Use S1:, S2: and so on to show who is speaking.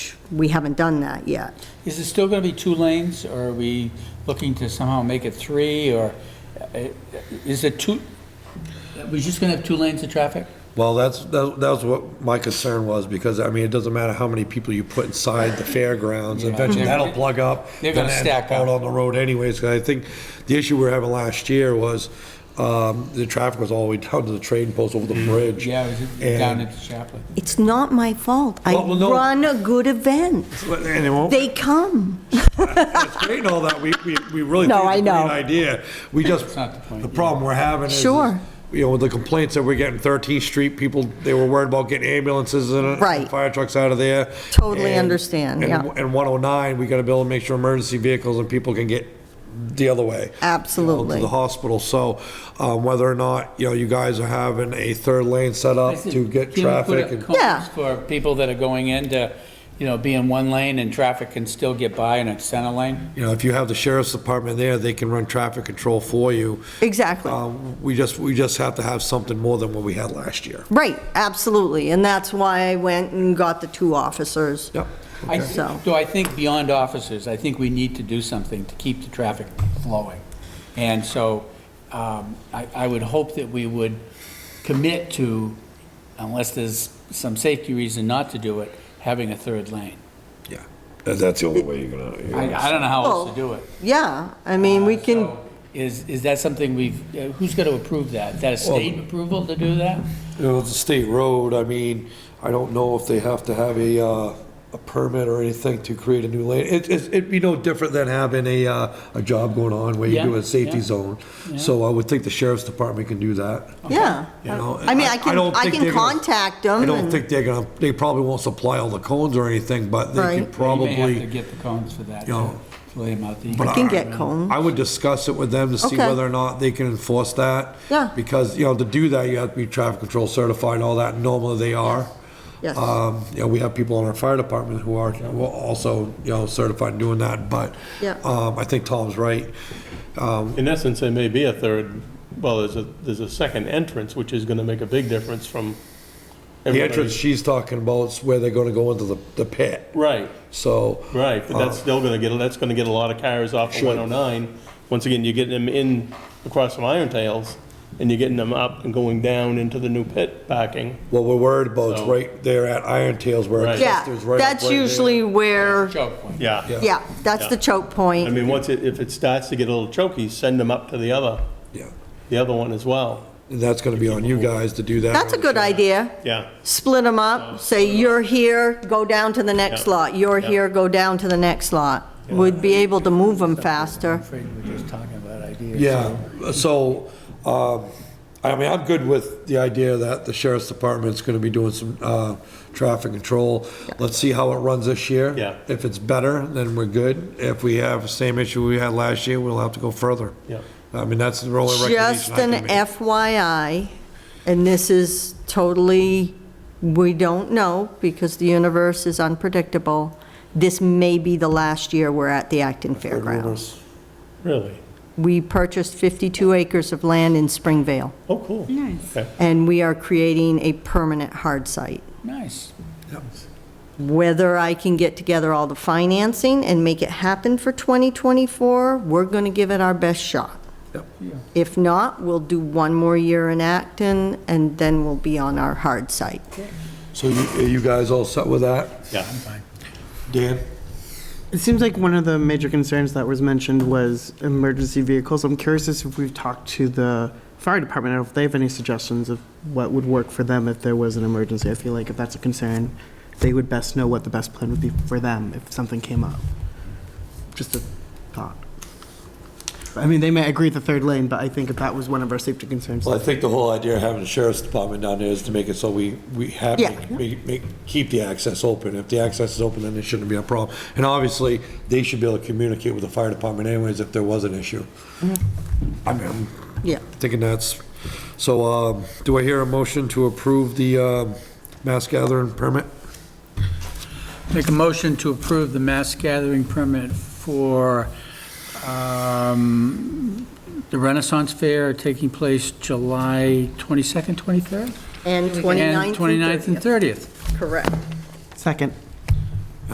S1: we haven't done that yet.
S2: Is it still going to be two lanes, or are we looking to somehow make it three, or uh, is it two, we're just going to have two lanes of traffic?
S3: Well, that's, that that was what my concern was, because, I mean, it doesn't matter how many people you put inside the fairgrounds,
S2: Yeah.
S3: eventually
S2: Mhm.
S3: that'll plug up.
S2: They're gonna
S3: then end
S2: stack up.
S3: Out on the road anyways, 'cause I think the issue we were having last year was, um, the traffic was all the way down to the train post over the bridge.
S2: Mm-hmm. Yeah, is it
S3: And-
S2: down into Chaplin?
S1: It's not my fault. I
S3: Well, well, no.
S1: run a good event.
S3: But- And it won't,
S1: They come.
S3: it's great and all that, we, we, we really
S1: No,
S3: think it's a
S1: I know.
S3: great idea. We just,
S2: It's not the point,
S3: the
S2: yeah.
S3: problem we're having is. is,
S1: Sure.
S3: You know, with the complaints that we're getting 13th Street, people, they were worried about getting ambulances and and
S1: Right.
S3: fire trucks out of there.
S1: Totally
S3: And-
S1: understand,
S3: and-
S1: yeah.
S3: And 109, we gotta be able to make sure emergency vehicles and people can get the other way. you know,
S1: Absolutely.
S3: To the hospital, so um, whether or not, you know, you guys are having a third lane set up to get
S2: Can we put
S3: traffic.
S2: up
S3: and-
S2: cones
S1: Yeah.
S2: For people that are going in to, you know, be in one lane and traffic can still get by in a center lane?
S3: You know, if you have the sheriff's department there, they can run traffic control for you.
S1: Exactly.
S3: Um, We just, we just have to have something more than what we had last year.
S1: Right, absolutely. And that's why I went and got the two officers.
S3: Yep.
S2: I-
S3: Okay.
S1: So-
S2: So I think beyond officers, I think we need to do something to keep the traffic flowing. And so um, I I would hope that we would commit to, unless there's some safety reason not to do it, having a third lane.
S3: Yeah. That- That's the only way you're gonna. you're
S2: I
S3: gonna-
S2: I don't know how else to do
S1: Well,
S2: it.
S1: Yeah, I mean,
S3: Uh,
S1: we can,
S2: So Is, is that something we've, uh, who's going to approve that? Is that a state approval to do that?
S3: You know, it's a state road, I mean, I don't know if they have to have a, uh, a permit or anything to create a new lane. It, it's- it'd be no different than having a, uh, a job going on where you do
S2: Yeah,
S3: a safety
S2: yeah,
S3: zone. So I would think the sheriff's department can do that.
S1: yeah.
S3: You know,
S1: I mean, I can,
S3: don't
S1: I
S3: think
S1: can
S3: they're gonna-
S1: contact them.
S3: I don't
S1: and-
S3: think they're gonna, they probably won't supply all the cones or anything, but they
S1: Right. You
S3: could
S1: may
S2: You may have to
S3: probably.
S2: get the cones for that,
S3: You
S2: to
S3: know,
S2: lay them out.
S3: but
S1: I can get cones.
S3: I would discuss it with them to see
S1: Okay.
S3: whether or not they can enforce that.
S1: Yeah.
S3: Because, you know, to do that, you have to be traffic control certified, and all that, and normally they are.
S1: Yes.
S3: Um, you know, we have people in our fire department who are who are also, you know, certified in doing that, but
S1: Yeah.
S3: um, I think Tom's right.
S4: In essence, there may be a third, well, there's a, there's a second entrance, which is gonna make a big difference from.
S3: The
S4: everybody's-
S3: entrance she's talking about is where they're gonna go into the, the pit,
S4: Right,
S3: so.
S4: right, but that's still gonna get, that's gonna get a lot of cars off of
S3: Sure.
S4: one oh nine. Once again, you're getting them in across from Iron Tails, and you're getting them up and going down into the new pit backing.
S3: What we're worried about is
S4: So-
S3: right there at Iron Tails where it
S4: Right.
S1: Yeah,
S3: clusters right up
S1: that's
S3: right there.
S1: usually where,
S2: Choke point.
S4: Yeah.
S1: yeah, that's the
S4: Yeah.
S1: choke
S4: I
S1: point.
S4: mean, once it, if it starts to get a little choky, send them up to the other,
S3: Yeah,
S4: the other one as well.
S3: And that's gonna be on you guys to do that.
S1: That's a good idea.
S4: Yeah,
S1: Split them up, say you're here, go down to the next
S4: Yeah.
S1: lot, you're
S4: Yeah.
S1: here, go down to the next lot. Would be able to move them faster.
S2: I'm afraid we're just talking about ideas.
S3: Yeah, so, um, I mean, I'm good with the idea that the sheriff's department's gonna be doing some, uh, traffic control. Let's see how it runs this year.
S4: Yeah.
S3: If it's better, then we're good. If we have the same issue we had last year, we'll have to go further.
S4: Yeah.
S3: I mean, that's the only
S1: Just
S3: recommendation I can
S1: an
S3: make.
S1: FYI, and this is totally, we don't know, because the universe is unpredictable. This may be the last year we're at the Acton Fairgrounds.
S4: really.
S1: We purchased 52 acres of land in Springvale,
S4: Oh, cool. Nice.
S1: and we are creating a permanent hard site.
S2: Nice.
S1: Whether I can get together all the financing and make it happen for 2024, we're going to give it our best shot.
S3: Yep.
S1: If not, we'll do one more year in Acton, and then we'll be on our hard site.
S3: So you, are you guys all set with that?
S4: Yeah.
S3: Dan?
S5: It seems like one of the major concerns that was mentioned was emergency vehicles. I'm curious as if we've talked to the fire department, or if they have any suggestions of what would work for them if there was an emergency. I feel like if that's a concern, they would best know what the best plan would be for them if something came up. Just a thought. I mean, they may agree with the third lane, but I think if that was one of our safety concerns.
S3: Well, I think the whole idea of having the sheriff's department down there is to make it so we, we have,
S1: Yeah.
S3: make, make, keep the access open. If the access is open, then it shouldn't be a problem. And obviously, they should be able to communicate with the fire department anyways if there was an issue. I mean, I'm
S1: Yeah.
S3: thinking that's, so, um, do I hear a motion to approve the, um, mass gathering permit?
S2: Make a motion to approve the mass gathering permit for um, the Renaissance Fair taking place July 22nd, 23rd?
S1: And 29th.
S2: And 29th and 30th.
S1: Correct.
S5: Second.